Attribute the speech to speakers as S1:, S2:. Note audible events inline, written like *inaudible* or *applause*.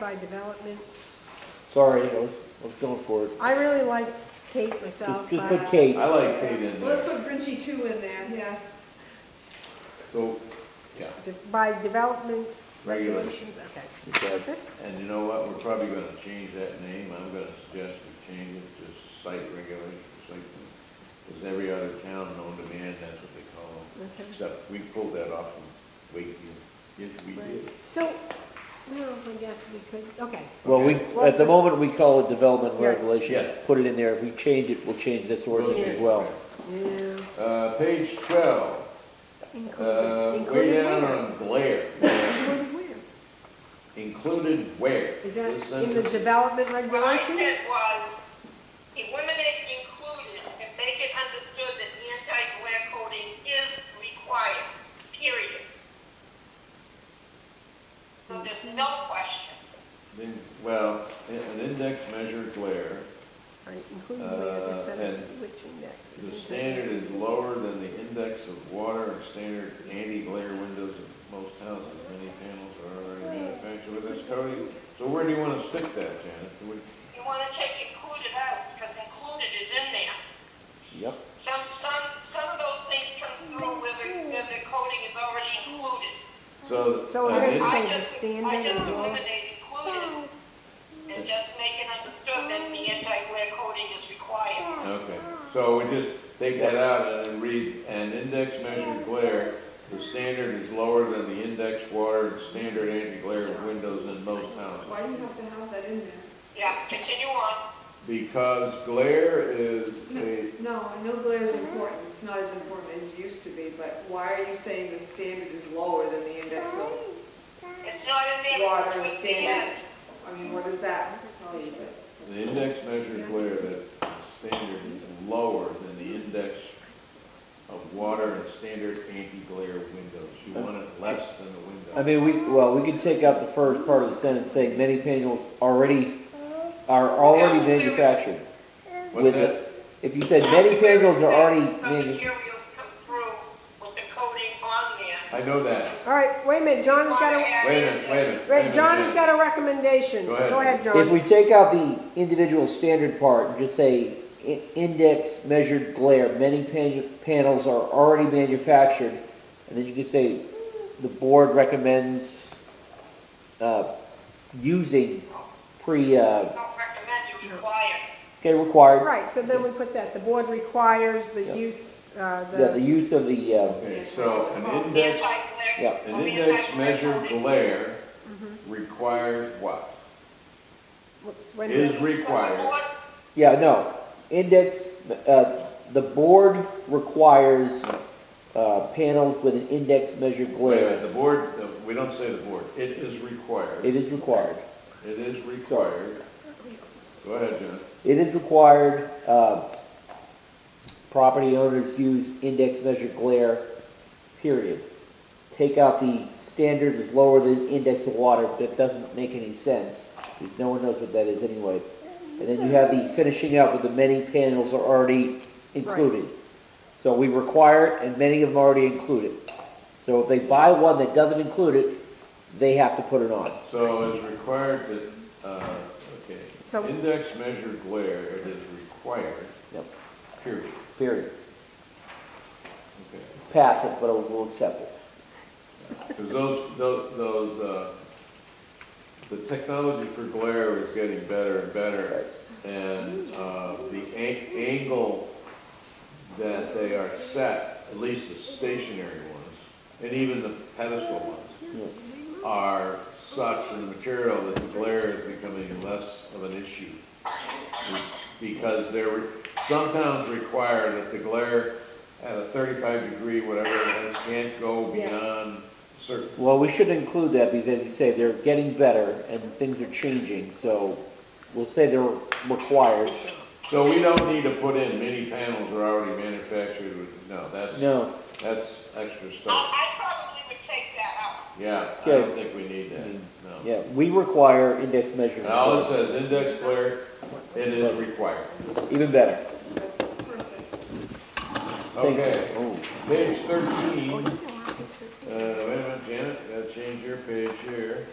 S1: by development.
S2: Sorry, I was, I was going for it.
S1: I really like Kate myself.
S2: Just, just
S1: but-
S2: put Kate.
S3: I like uh, Kate in
S1: Let's
S3: there,
S1: put Grinchy two in there, yeah.
S3: so, yeah,
S1: De- By development.
S3: regulation.
S1: Okay.
S2: Okay.
S3: And you know what, we're probably gonna change that name, I'm gonna suggest we change it to site regulations, like, because every other town known to man, that's what they call them.
S1: Okay.
S3: Except we pulled that off from Wakefield, yes, we did.
S1: Right. So, well, I guess we could, okay.
S2: Well, we,
S1: Well,
S2: at the
S1: just-
S2: moment, we call it development
S1: Yeah.
S2: regulations.
S3: Yeah.
S2: Put it in there. If we change it, we'll change this ordinance as
S3: Okay.
S2: well.
S1: Yeah.
S3: Uh, page twelve, uh,
S1: Included
S3: way
S1: included
S3: down
S1: where?
S3: on Blair,
S1: *laughs* Included where?
S3: included where?
S1: Is
S3: This
S1: that in the
S3: sentence-
S1: development
S4: What I
S1: regulations?
S4: said was, eliminate inclusion and make it understood that anti-glare coating is required, period. So there's no question.
S3: in- Well, an index measure glare
S1: Right, included where the
S3: Uh,
S1: sentence,
S3: and
S1: which index
S3: The
S1: is
S3: standard is lower than the index of water and standard anti-glare windows in most houses. Many panels are already manufactured with this coating. So where do you want to stick that, Janet? Do we-
S4: You wanna take included out, because included is in there.
S2: Yep.
S4: Some, some, some of those things come through where the, where the coating is already included.
S3: So.
S1: So
S3: uh,
S1: we're gonna
S3: in-
S4: I
S1: Say the
S4: just- I
S1: standard
S4: just
S1: as well.
S4: eliminate included and just make it understood that the anti-glare coating is required.
S3: Okay, so we just take that out and then read, an index measure glare, the standard is lower than the index water and standard anti-glare windows in most houses.
S5: Why do you have to have that in there?
S4: Yeah, continue on.
S3: Because glare is a,
S5: No, I know glare is important, it's not as important as it used to be, but why are you saying the standard is lower than the index of,
S4: It's not in there.
S5: Water
S4: It's at the
S5: standard.
S4: end.
S5: I mean, what does that tell you?
S3: The index measure glare that standard is lower than the index of water and standard anti-glare windows. You want it less than the
S2: I
S3: window.
S2: mean, we, well, we could take out the first part of the sentence saying many panels already, are already manufactured.
S3: What's
S2: With
S3: that?
S2: it. If you said many panels are already
S4: The
S2: manu-
S4: materials come through with the coating on there.
S3: I know that.
S1: All right, wait a minute, John has got
S4: Wanna
S1: a,
S4: add
S3: Wait a
S4: in
S3: minute, wait a minute. wait a
S1: wait, John has
S3: minute.
S1: got a recommendation.
S3: Go ahead.
S1: Go ahead,
S2: if
S1: John.
S2: we take out the individual standard part and just say i- index measured glare, many pan- panels are already manufactured, and then you could say the board recommends, uh, using pre, uh,
S4: the- Don't recommend you require.
S2: okay, required,
S1: Right, so then we put that, the board requires the
S2: Yeah.
S1: use, uh,
S2: yeah, the
S1: the,
S2: use of the, uh,
S3: Okay, so an index,
S2: Yeah.
S4: Anti-glare.
S3: an index
S4: anti-glare
S3: measure
S4: coating.
S3: glare
S1: Mm-hmm.
S3: requires what?
S1: whoops, wait a minute.
S3: Is required.
S4: What-
S2: Yeah, no, index, uh, the board requires, uh, panels with an index measured
S3: Wait a minute,
S2: glare.
S3: the board, the- we don't say the board. It is required.
S2: It is required.
S3: It is required. Go ahead, John.
S2: It is required, uh, property owners use index measured glare, period. Take out the standard is lower than index of water, that doesn't make any sense, because no one knows what that is anyway. And then you have the finishing up with the many panels are already included. So we require it, and many of them already include it. So if they buy one that doesn't include it, they have to put it on.
S3: So it's required that, uh,
S1: So-
S3: okay, index measure glare, it is required,
S2: Yep,
S3: period.
S2: period.
S3: Okay.
S2: It's passive, but we'll accept it.
S3: Because those, those, those, uh, the technology for glare is getting better and better. And uh, the an- angle that they are set, at least the stationary ones, and even the pedestal ones,
S2: Yeah.
S3: are such in material that the glare is becoming less of an issue. Because there were, some towns require that the glare at a thirty-five degree, whatever it is, can't go beyond certain.
S2: Well, we should include that because as you say, they're getting better and things are changing, so we'll say they're required.
S3: So we don't need to put in many panels are already manufactured with, no, that's,
S2: No,
S3: that's extra
S4: I,
S3: stuff.
S4: I probably would take that out.
S3: Yeah, I don't
S2: Okay.
S3: think we need that, no.
S2: yeah, we require index measurement.
S3: Now, it says index glare, it is required.
S2: Even better.
S5: That's perfect.
S2: Thank you.
S3: Okay,
S2: Oh,
S3: page thirteen.
S1: Oh, you know, I think so.
S3: Uh, wait a minute, Janet, gotta change your page here.